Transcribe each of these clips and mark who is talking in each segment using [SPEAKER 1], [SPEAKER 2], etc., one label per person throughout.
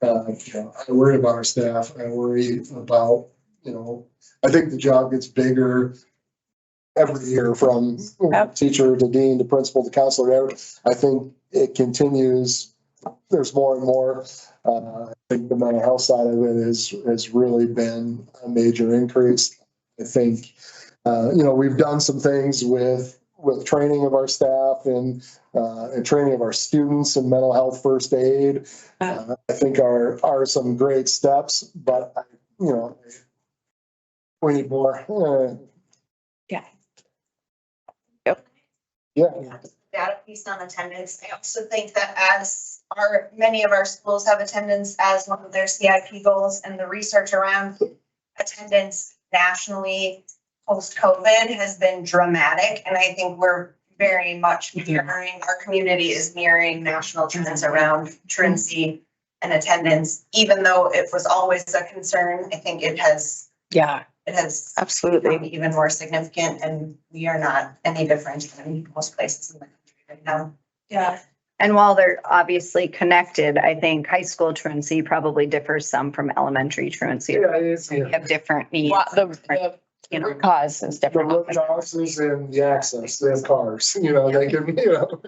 [SPEAKER 1] Uh, you know, I worry about our staff, I worry about, you know, I think the job gets bigger every year from
[SPEAKER 2] Yep.
[SPEAKER 1] teacher to dean to principal to counselor. every- I think it continues, there's more and more. Uh, I think the mental health side of it has, has really been a major increase. I think, uh, you know, we've done some things with, with training of our staff and, uh, and training of our students in mental health first aid. Uh, I think are, are some great steps, but, I- you know, we need more. Uh,
[SPEAKER 2] Yeah. Yep.
[SPEAKER 1] Yeah,
[SPEAKER 3] data piece on attendance. I also think that as our, many of our schools have attendance as one of their CIP goals and the research around attendance nationally post-COVID has been dramatic. And I think we're very much mirroring, our community is mirroring national trends around truancy and attendance, even though it was always a concern. I think it has,
[SPEAKER 2] Yeah,
[SPEAKER 3] it has become
[SPEAKER 2] absolutely.
[SPEAKER 3] even more significant and we are not any different than most places in the country right now. Yeah.
[SPEAKER 4] And while they're obviously connected, I think high school truancy probably differs some from elementary truancy.
[SPEAKER 1] yeah, it's,
[SPEAKER 4] We
[SPEAKER 1] yeah.
[SPEAKER 4] have different needs,
[SPEAKER 2] Well, The, the
[SPEAKER 4] you know.
[SPEAKER 2] root cause is
[SPEAKER 1] The
[SPEAKER 2] different.
[SPEAKER 1] road houses and the access, they have cars, you know, they can, you know,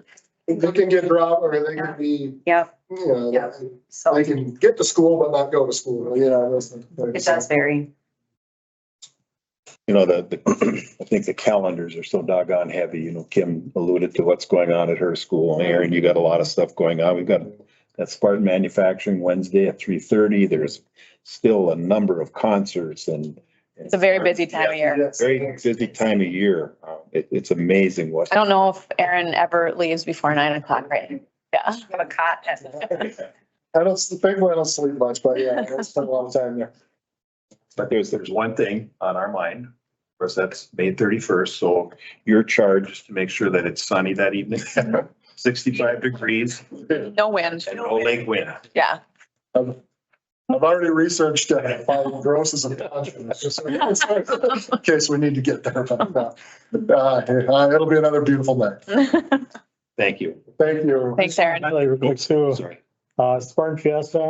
[SPEAKER 1] they can get robbed or they can be,
[SPEAKER 4] Yep,
[SPEAKER 1] you know,
[SPEAKER 4] Yeah.
[SPEAKER 1] they-
[SPEAKER 4] so
[SPEAKER 1] they
[SPEAKER 4] it
[SPEAKER 1] can get to school but not go to school, you know. those things.
[SPEAKER 4] does vary.
[SPEAKER 5] you know, the, the, I think the calendars are so doggone heavy, you know, Kim alluded to what's going on at her school, Aaron, you got a lot of stuff going on, we've got that Spartan Manufacturing Wednesday at three thirty, there's still a number of concerts and.
[SPEAKER 2] It's a very busy time of year.
[SPEAKER 1] Yes.
[SPEAKER 5] Very busy time of year, Uh, it, it's amazing what.
[SPEAKER 2] I don't know if Erin ever leaves before nine o'clock, right? Yeah.
[SPEAKER 4] We have a cot at the
[SPEAKER 1] I don't, the big one, I don't sleep much, but yeah, I spend a lot of time there.
[SPEAKER 5] But there's, there's one thing on our mind, of course, that's May thirty-first, so your charge is to make sure that it's sunny that evening. Sixty-five degrees
[SPEAKER 2] No wind.
[SPEAKER 5] and no lake wind.
[SPEAKER 2] Yeah.
[SPEAKER 1] Um, I've already researched uh, five grosses of contracts, just in case we need to get there, but uh, uh, it'll be another beautiful night.
[SPEAKER 5] Thank you.
[SPEAKER 1] Thank you.
[SPEAKER 2] Thanks, Erin.
[SPEAKER 6] Highlight real quick too,
[SPEAKER 5] Sorry.
[SPEAKER 6] uh, Spartan Fiesta
[SPEAKER 1] It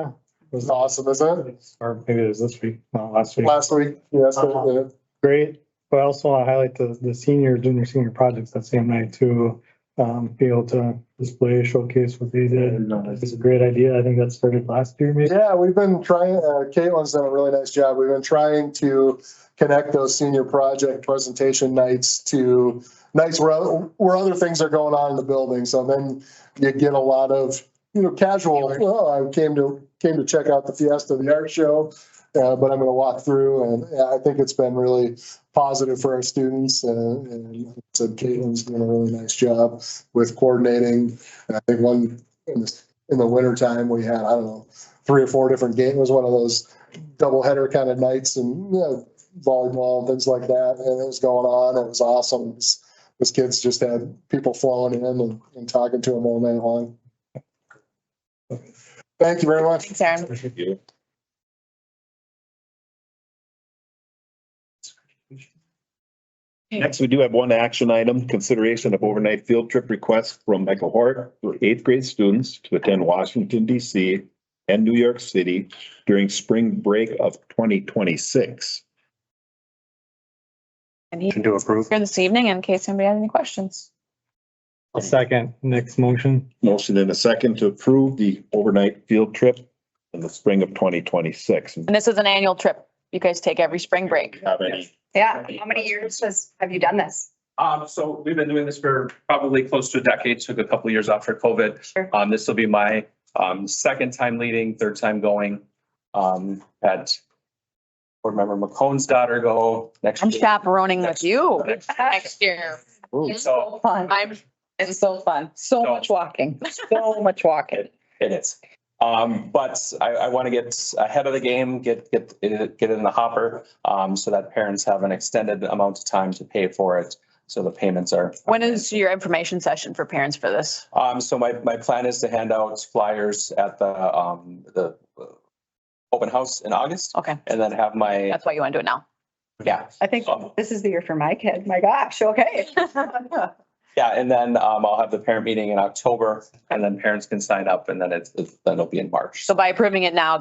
[SPEAKER 1] was
[SPEAKER 6] was,
[SPEAKER 1] awesome, isn't it?
[SPEAKER 6] or maybe it was this week, no, last week.
[SPEAKER 1] Last week, yes, uh,
[SPEAKER 6] Great, but I also want to highlight the, the senior, junior, senior projects that same night to, um, be able to display, showcase what they did. It's a great idea. I think that started last year maybe.
[SPEAKER 1] Yeah, we've been trying, uh, Caitlin's done a really nice job. We've been trying to connect those senior project presentation nights to nights where, oth- where other things are going on in the building. So then you get a lot of, you know, casual, oh, I came to, came to check out the Fiesta, the art show. Uh, but I'm gonna walk through and yeah, I think it's been really positive for our students and, and like I said, Caitlin's doing a really nice job with coordinating. And I think one, in the, in the winter time, we had, I don't know, three or four different games. It was one of those double header kind of nights and you know, volleyball and things like that. And it was going on. It was awesome. It was- Those kids just had people flowing in and, and talking to them all night long. Thank you very much.
[SPEAKER 2] Thanks, Erin.
[SPEAKER 5] Thank you. Next, we do have one action item, consideration of overnight field trip request from Michael Hort for eighth grade students to attend Washington DC and New York City during spring break of twenty twenty-six.
[SPEAKER 2] And he to approve. Here this evening in case anybody had any questions.
[SPEAKER 6] A second, next motion.
[SPEAKER 5] Motion in a second to approve the overnight field trip in the spring of twenty twenty-six.
[SPEAKER 2] And this is an annual trip you guys take every spring break.
[SPEAKER 5] Have any,
[SPEAKER 4] Yeah, how many years has, have you done this?
[SPEAKER 7] Um, so we've been doing this for probably close to a decade, took a couple of years off for COVID.
[SPEAKER 4] Sure.
[SPEAKER 7] Um, this will be my, um, second time leading, third time going. Um, had board member McCone's daughter go next.
[SPEAKER 2] I'm
[SPEAKER 7] year.
[SPEAKER 2] chaperoning with you
[SPEAKER 7] Next-
[SPEAKER 2] next year.
[SPEAKER 7] So
[SPEAKER 4] Fun.
[SPEAKER 2] I'm, it's so fun. So
[SPEAKER 7] much
[SPEAKER 2] walking, so much walking.
[SPEAKER 7] it is. Um, but I, I want to get ahead of the game, get, get, it- get it in the hopper, um, so that parents have an extended amount of time to pay for it. So the payments are.
[SPEAKER 2] When is your information session for parents for this?
[SPEAKER 7] Um, so my, my plan is to hand out flyers at the, um, the uh, open house in August
[SPEAKER 2] Okay,
[SPEAKER 7] and then have my,
[SPEAKER 2] that's why you want to do it now.
[SPEAKER 7] yeah.
[SPEAKER 4] I think this is the year for my kid. My gosh, okay.
[SPEAKER 7] Yeah, and then um, I'll have the parent meeting in October and then parents can sign up and then it's, it's- then it'll be in March.
[SPEAKER 2] So by approving it now,